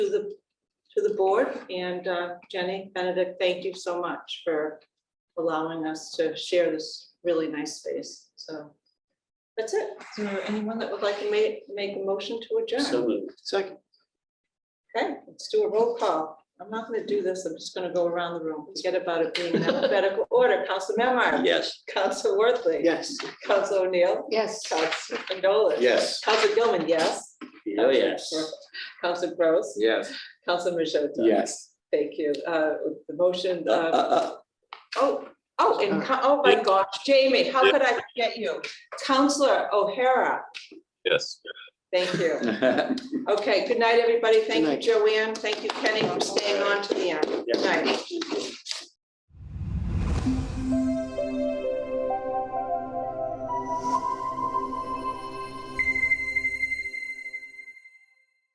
to the, to the board. And uh, Jenny, Benedict, thank you so much for allowing us to share this really nice space. So that's it. Is there anyone that would like to make, make a motion to adjourn? So moved. Second. Okay, let's do a roll call. I'm not gonna do this. I'm just gonna go around the room. Forget about it being in alphabetical order. Council Memard. Yes. Council Worthley. Yes. Council O'Neill. Yes. Council Condola. Yes. Council Gilman, yes. Oh, yes. Council Gross. Yes. Council Majota. Yes. Thank you. Uh, the motion, Uh, uh, uh, oh, oh, and, co- oh my gosh, Jamie, how could I forget you? Counselor O'Hara, Yes. thank you. uh. Okay, good night, everybody. Thank you, Good Joanne. Thank you, Kenny, for staying on to the end. Yeah. Good night.